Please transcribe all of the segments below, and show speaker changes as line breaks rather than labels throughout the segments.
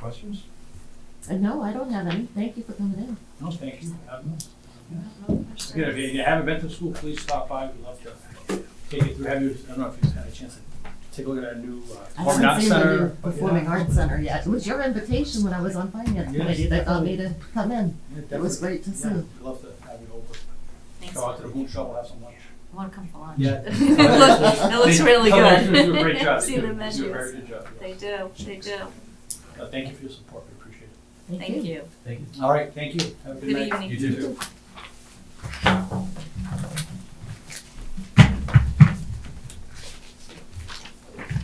questions?
Uh, No, I don't have any. Thank you for coming in.
No, thank you. Have- Again, if you haven't been to the school, please stop by, we'd love to take you through, have you, I don't know if you've had a chance to take a look at our new uh,
I
performing
haven't
arts
seen the
center.
new Performing Arts Center yet. It was your invitation when I was on finance
Yes.
committee that got me to come in.
Yeah,
It was
definitely.
great to see.
Yeah, we'd love to have you over,
Thanks.
go out
I
to the boot shop, we'll have some lunch.
want to come for lunch.
Yeah.
It looks, it looks
They-
really
Kellogg's
good.
do a great job. They
See
do-
the
they do a very good
menus.
job.
They do, they do.
Uh, Thank you for your support, we appreciate it.
Thank you.
Thank you. All right, thank you. Have a good
Good
night.
evening. You
too.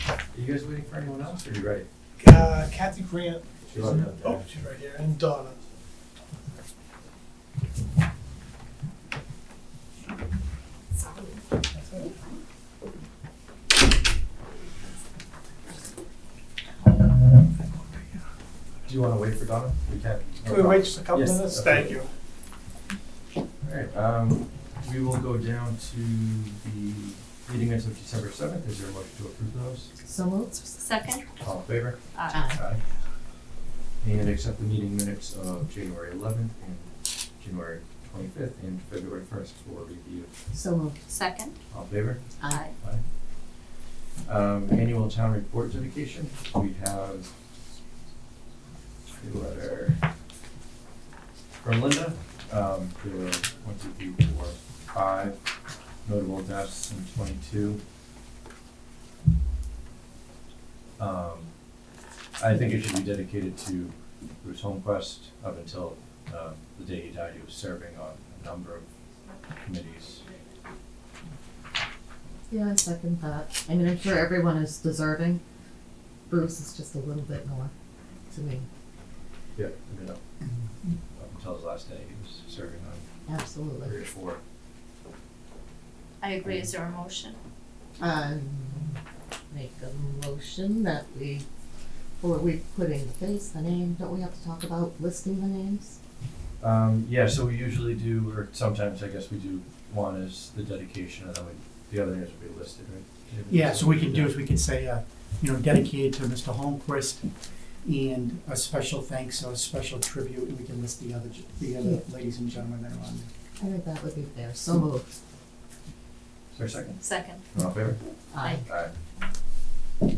Are you guys waiting for anyone else, or are you ready?
Uh, Kathy Grant,
She's on that.
oh, she's right here, and Donna.
Do you wanna wait for Donna? We can.
Can we wait just a couple
Yes,
minutes?
okay.
Thank you.
Alright, um, we will go down to the meeting minutes of December seventh, is there a motion to approve those?
So moved.
Second?
All in favor?
Aye.
Aye.
Aye. And accept the meeting minutes of January eleventh and January twenty-fifth and February first for review.
So moved.
Second?
All in favor?
Aye.
Um, annual town report dedication, we have a letter from Linda. Um, there were one, two, three, four, five notable deaths in twenty-two. Um, I think it should be dedicated to Bruce Holmquist up until, um, the day he died, he was serving on a number of committees.
Yeah, second thought. I mean, I'm sure everyone is deserving. Bruce is just a little bit more to me.
Yeah. You know, up until his last day, he was serving on three
Absolutely.
or four.
I agree, is there a motion?
Um, make a motion that we, or we put in the face, the name. Don't we have to talk about listing the names?
Um, yeah, so we usually do, or sometimes I guess we do, one is the dedication, and then we, the other names will be listed, right? David?
Yeah, so we can do is we can say, uh, you know, dedicated to Mr. Holmquist and a special thanks or a special tribute, and we can list the other, ge- the other ladies and gentlemen that are on there.
I think that would be fair. So moved.
Is there a second?
Second.
All in favor?
Aye.
Aye. Alright,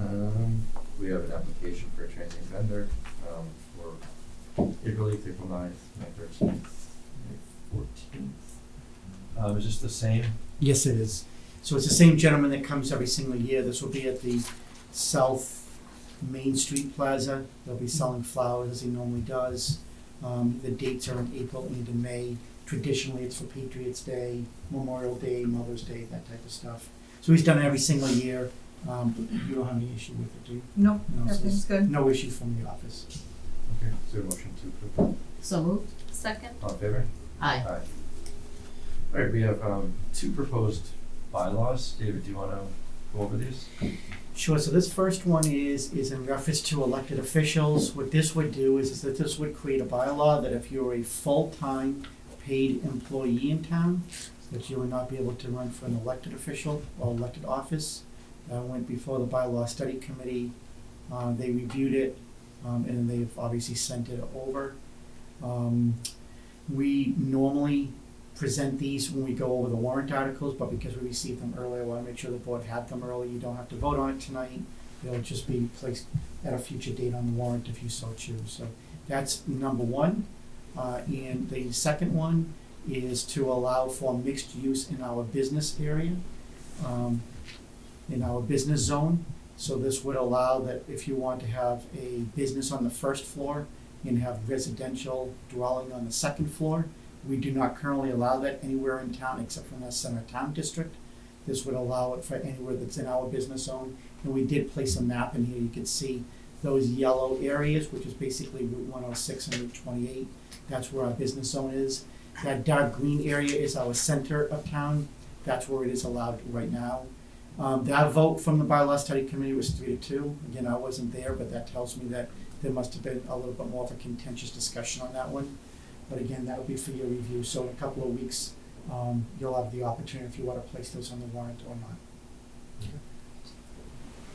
um, we have an application for a transient vendor, um, for April eighth, April ninth, May thirteenth, May fourteenth. Um, is this the same?
Yes, it is. So it's the same gentleman that comes every single year. This will be at the South Main Street Plaza. They'll be selling flowers as he normally does. Um, the dates are in April and in May. Traditionally, it's for Patriots Day, Memorial Day, Mother's Day, that type of stuff. So he's done it every single year. Um, you don't have any issue with it, do you?
No,
No, so
everything's good.
No issue from the office.
Okay, is there a motion to approve?
So moved.
Second?
All in favor?
Aye.
Aye. All right, we have, um, two proposed bylaws. David, do you wanna go over these?
Sure, so this first one is, is in reference to elected officials. What this would do is, is that this would create a bylaw that if you're a full-time paid employee in town, that you would not be able to run for an elected official or elected office. I went before the bylaw study committee, uh, they reviewed it, um, and they've obviously sent it over. Um, we normally present these when we go over the warrant articles, but because we received them earlier, I wanna make sure the board had them early, you don't have to vote on it tonight. They'll just be placed at a future date on the warrant if you so choose, so that's number one. Uh, and the second one is to allow for mixed use in our business area, um, in our business zone. So this would allow that if you want to have a business on the first floor and have residential dwelling on the second floor, we do not currently allow that anywhere in town except for in the center town district. This would allow it for anywhere that's in our business zone. And we did place a map in here, you can see those yellow areas, which is basically Route one oh six and Route twenty-eight. That's where our business zone is. That dark green area is our center of town. That's where it is allowed right now. Um, that vote from the bylaw study committee was three to two. Again, I wasn't there, but that tells me that there must have been a little bit more of a contentious discussion on that one. But again, that'll be for your review, so in a couple of weeks, um, you'll have the opportunity if you wanna place those on the warrant or not.